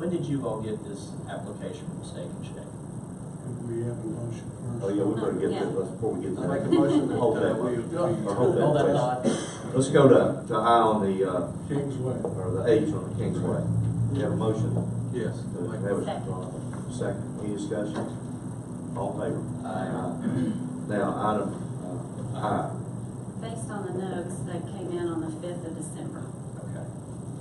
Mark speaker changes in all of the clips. Speaker 1: did you all get this application from Steak and Shake?
Speaker 2: We have a motion first.
Speaker 3: Oh, yeah, we better get
Speaker 4: Yeah.
Speaker 3: this, before we get to
Speaker 5: I
Speaker 3: that.
Speaker 5: make a motion that
Speaker 3: Hold
Speaker 5: uh,
Speaker 3: that one.
Speaker 5: we.
Speaker 3: Or hold
Speaker 1: Hold that
Speaker 3: question.
Speaker 1: thought.
Speaker 3: Let's go to, to I on the, uh,
Speaker 2: Kingsway.
Speaker 3: or the H on the Kingsway. We have a motion.
Speaker 5: Yes. I
Speaker 3: Do we
Speaker 5: make a
Speaker 3: have a-
Speaker 5: motion.
Speaker 3: Second, any discussion? All in favor? Aye. Now, item, uh, I,
Speaker 4: Based on the notes that came in on the fifth of December,
Speaker 1: Okay.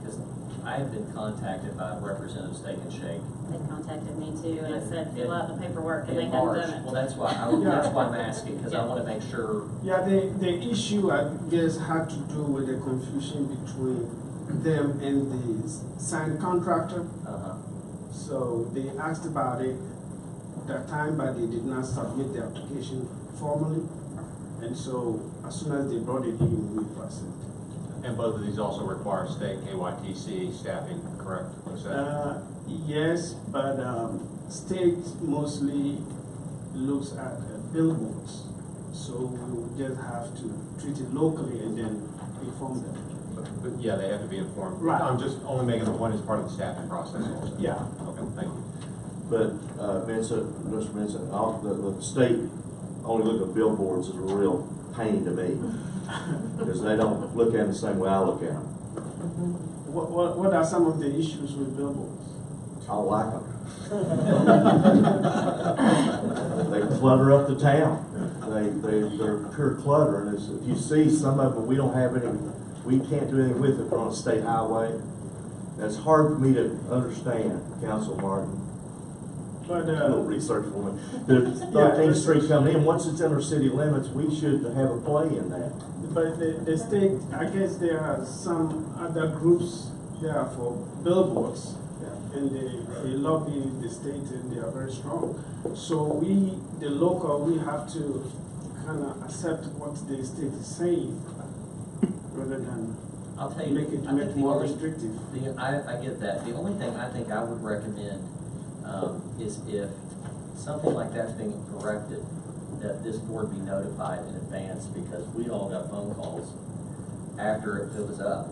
Speaker 1: Because I have been contacted by Representative Steak and Shake.
Speaker 4: they contacted me too, and I said, fill out the paperwork, and they
Speaker 1: in
Speaker 4: hadn't
Speaker 1: March.
Speaker 4: done
Speaker 1: Well,
Speaker 4: it.
Speaker 1: that's why, I- that's why I'm asking, because I want to make sure.
Speaker 6: Yeah, the, the issue I guess had to do with the confusion between them and the signed contractor.
Speaker 1: uh-huh.
Speaker 6: So they asked about it that time, but they did not submit the application formally. And so as soon as they brought it in, we passed it.
Speaker 7: And both of these also require state KYTC staffing, correct? Was that-
Speaker 6: Uh, yes, but, um, state mostly looks at uh, billboards. So we will just have to treat it locally and then inform them.
Speaker 7: But but yeah, they have to be informed.
Speaker 6: Right.
Speaker 7: I'm just only making the point as part of the staffing process also.
Speaker 6: Yeah.
Speaker 7: Okay, thank you.
Speaker 3: but, uh, Vincent, Mr. Vincent, all, the, the state only look at billboards is a real pain to me. Because they don't look at them the same way I look at them.
Speaker 6: What, what, what are some of the issues with billboards?
Speaker 3: I don't like them. They clutter up the town. They, they, they're pure clutter, and it's, if you see some of them, we don't have any, we can't do anything with it, they're on a state highway. That's hard for me to understand, Council Martin.
Speaker 6: But,
Speaker 3: a little
Speaker 6: uh,
Speaker 3: research for me. The Thirteenth Street coming in, once it's in our city limits, we should have a play in that.
Speaker 6: but the, the state, I guess there are some other groups there for billboards. And they, they lobby the state and they are very strong. So we, the local, we have to kind of accept what the state is saying rather than
Speaker 1: I'll tell you.
Speaker 6: make it,
Speaker 1: I
Speaker 6: make
Speaker 1: think
Speaker 6: it
Speaker 1: the
Speaker 6: more
Speaker 1: only-
Speaker 6: restrictive.
Speaker 1: The, I, I get that. The only thing I think I would recommend, um, is if something like that's being corrected, that this board be notified in advance, because we all got phone calls after it was up.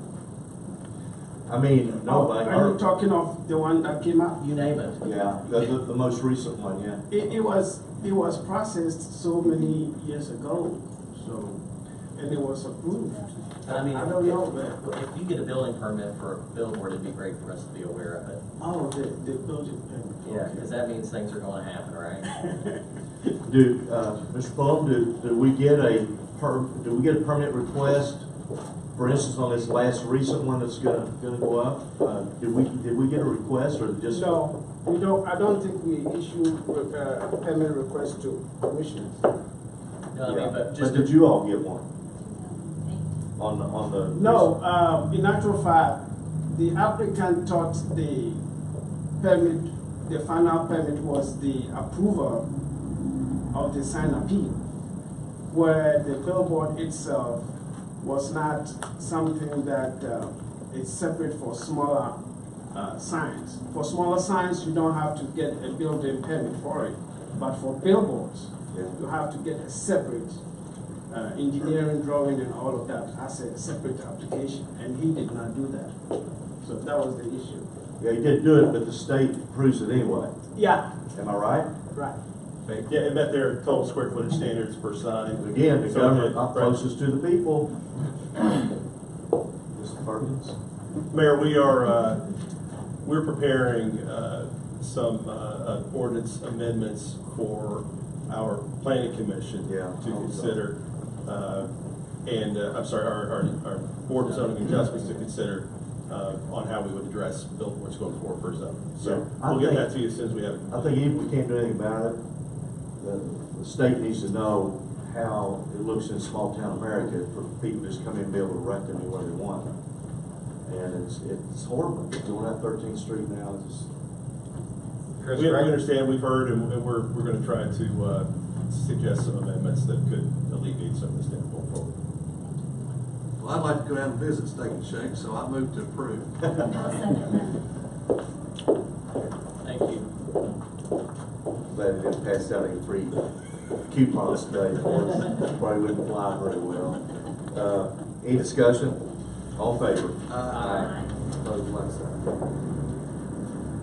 Speaker 3: I mean, nobody,
Speaker 6: Oh, Are you talking of the one that came out?
Speaker 1: You name it.
Speaker 3: yeah, the, the, the most recent one, yeah.
Speaker 6: It, it was, it was processed so many years ago, so, and it was approved.
Speaker 1: But I mean,
Speaker 6: I don't know, man.
Speaker 1: If you get a building permit for a billboard, it'd be great for us to be aware of it.
Speaker 6: Oh, the, the building permit.
Speaker 1: Yeah, because that means things are gonna happen, right?
Speaker 3: Do, uh, Mr. Pullum, do, do we get a per, do we get a permit request? For instance, on this last recent one that's gonna, gonna go up, uh, did we, did we get a request or just?
Speaker 6: No, we don't, I don't think we issue, uh, permit request to commissioners.
Speaker 1: No, I mean, but
Speaker 3: But
Speaker 1: just,
Speaker 3: did you all get one
Speaker 4: Eight
Speaker 3: on, the on the?
Speaker 6: No, uh, in actual fact, the applicant thought the permit, the final permit was the approval of the sign appeal, where the billboard itself was not something that uh, is separate for smaller uh, signs. For smaller signs, you don't have to get a building permit for it, but for billboards,
Speaker 3: Yeah.
Speaker 6: you have to get a separate uh, engineering drawing and all of that as a separate application, and he did not do that. So that was the issue.
Speaker 3: Yeah, you did do it, but the state approves it anyway,
Speaker 6: Yeah,
Speaker 3: am I right?
Speaker 6: right.
Speaker 8: Yeah, and that there are total square footage standards per sign.
Speaker 3: Again, the
Speaker 8: So,
Speaker 3: government
Speaker 8: right.
Speaker 3: closest to the people. Mr. Perkins?
Speaker 8: Mayor, we are, uh, we're preparing uh, some uh, uh, ordinance amendments for our planning commission
Speaker 3: Yeah.
Speaker 8: to consider, uh, and, uh, I'm sorry, our, our- our board of zoning adjustments to consider uh, on how we would address billboards going forward for zoning. So
Speaker 3: Yeah. I
Speaker 8: we'll get
Speaker 3: think-
Speaker 8: that to you as soon as we have.
Speaker 3: I think even if we can't do anything about it, the, the state needs to know how it looks in small town America for people to just come in and be able to rent them anywhere they want. And it's, it's horrible, doing that Thirteenth Street now, it's just,
Speaker 7: Chris,
Speaker 8: We we
Speaker 7: correct?
Speaker 8: understand, we've heard, and and we're, we're gonna try to uh, suggest some amendments that could alleviate some of this down going forward.
Speaker 9: Well, I'd like to go down and visit Steak and Shake, so I move to approve.
Speaker 4: days. I'll second that.
Speaker 1: thank you.
Speaker 3: glad they didn't pass out any free coupons today, for us. probably wouldn't fly very well. Uh, any discussion? All in favor?
Speaker 9: Aye.
Speaker 3: Opposed, like sign.